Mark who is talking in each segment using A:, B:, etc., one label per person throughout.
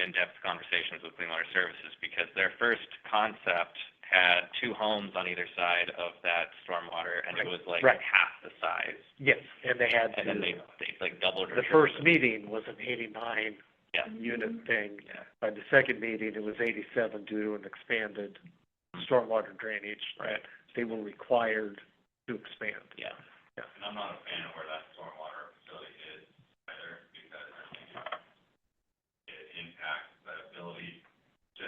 A: in-depth conversations with Clean Water Services because their first concept had two homes on either side of that stormwater, and it was like
B: Right.
A: half the size.
B: Yes, and they had
A: And then they,
B: to,
A: they like doubled or
B: the first
A: tripled it.
B: meeting was an eighty-nine
A: Yeah.
B: unit thing.
A: Yeah.
B: By the second meeting, it was eighty-seven due to an expanded stormwater drainage.
A: Right.
B: They were required to expand.
A: Yeah.
B: Yeah.
A: And I'm not a fan of where that stormwater facility is either, because I think it impacts the ability to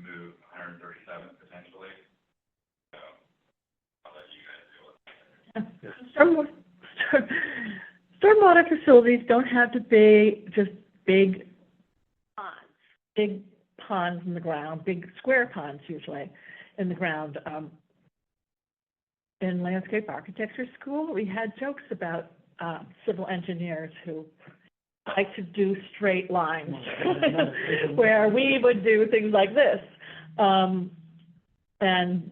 A: move hundred and thirty-seven potentially. So, I'll let you guys deal with
C: Stormwater, stormwater facilities don't have to be just big ponds, big ponds in the ground, big square ponds usually in the ground. Um, in landscape architecture school, we had jokes about, uh, civil engineers who like to do straight lines, where we would do things like this. Um, and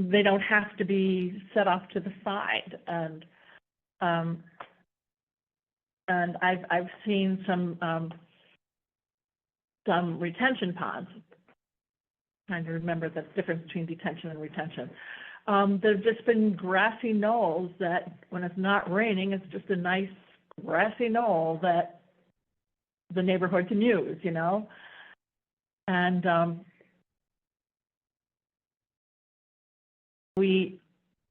C: they don't have to be set off to the side and um and I've I've seen some um some retention ponds. Trying to remember the difference between detention and retention. Um there've just been grassy knolls that when it's not raining, it's just a nice grassy knoll that the neighborhood can use, you know? And um we,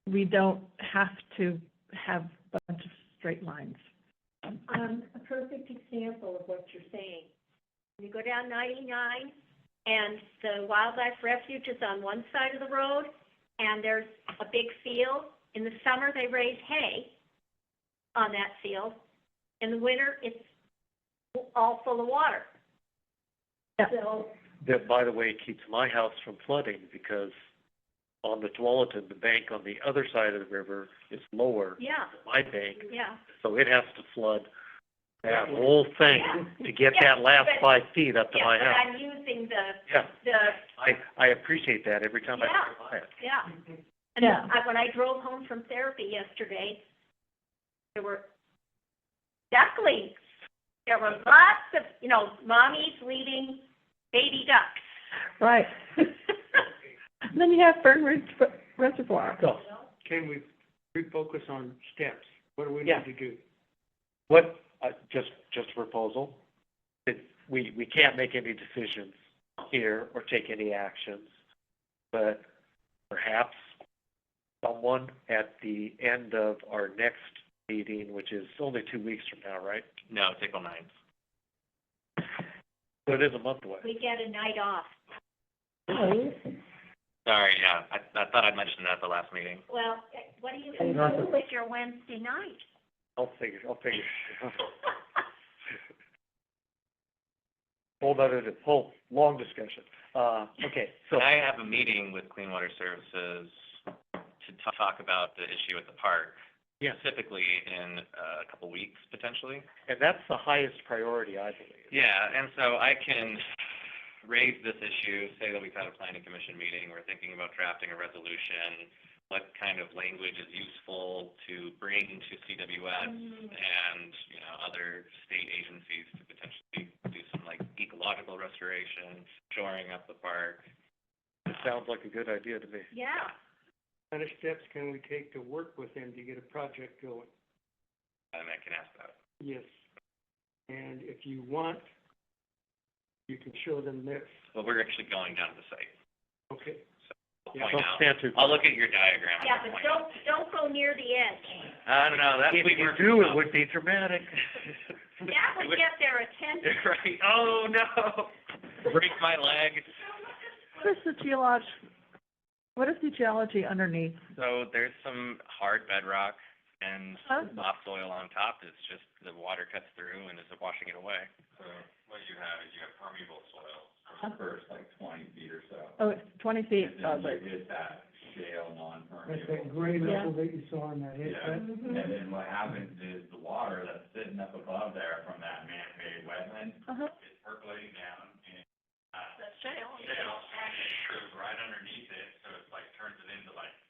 C: we don't have to have a bunch of straight lines.
D: um, a perfect example of what you're saying. You go down ninety-nine, and the wildlife refuge is on one side of the road, and there's a big field. In the summer, they raise hay on that field. In the winter, it's all full of water.
C: Yeah.
D: So,
B: That, by the way, keeps my house from flooding because on the Tualatin, the bank on the other side of the river is lower
D: yeah,
B: than my bank,
D: yeah.
B: so it has to flood that whole thing to get that last
D: Yeah, but-
B: five feet up to
D: Yeah,
B: my
D: but
B: house.
D: I'm using the,
B: Yeah,
D: the,
B: I, I appreciate that every time I
D: Yeah.
B: drive by it.
D: yeah. And
C: Yeah.
D: I, when I drove home from therapy yesterday, there were ducklings. There were lots of, you know, mommies leading baby ducks.
C: Right. And then you have Fern Ridge Reservoir.
B: So,
E: Can we refocus on steps? What do we
B: Yeah.
E: need to do?
B: what, uh, just, just a proposal, that we, we can't make any decisions here or take any actions, but perhaps someone at the end of our next meeting, which is only two weeks from now, right?
A: No, it's April ninth.
B: So it is a month away.
D: We get a night off.
A: Sorry, yeah, I, I thought I mentioned that at the last meeting.
D: Well, what do you do with your Wednesday night?
B: I'll figure, I'll figure. Whole other, whole, long discussion. Uh, okay, so,
A: So I have a meeting with Clean Water Services to t- talk about the issue at the park,
B: yeah,
A: specifically in uh, a couple weeks potentially.
B: and that's the highest priority, I believe.
A: Yeah, and so I can raise this issue, say that we've had a planning commission meeting, we're thinking about drafting a resolution, what kind of language is useful to bring to CWS
D: Mm,
A: and, you know, other state agencies to potentially do some like ecological restoration, shoring up the park.
B: It sounds like a good idea to me.
D: Yeah,
E: What kind of steps can we take to work with them to get a project going?
A: And I can ask that.
E: Yes. And if you want, you can show them this.
A: But we're actually going down to the site.
E: Okay.
A: I'll
E: Yeah,
A: point
B: Don't
A: out.
B: stand too
A: I'll look at your diagram. and
D: yeah,
A: I'll
D: but
A: point out.
D: don't, don't go near the edge.
A: I don't know, that's.
B: If
A: we
B: you
A: were-
B: do, it would be dramatic.
D: That would get their attention.
A: Right, oh no, break my leg.
C: What is the geolog, what is the geology underneath?
A: So there's some hard bedrock and
C: Huh?
A: soft soil on top. It's just the water cuts through and is washing it away. So what you have is you have permeable soil
C: the
A: first like twenty feet or so.
C: Oh, it's twenty feet,
D: uh,
C: probably.
A: hit that shale non-permeable.
E: gray
C: level
E: that you saw in that
A: Yeah.
C: Mhm.
A: then what happens is the water that's sitting up above there from that man-made wetland
C: Uh-huh.
A: is percolating down and, uh,
D: The shale.
A: shale goes right underneath it, so it's like turns it into like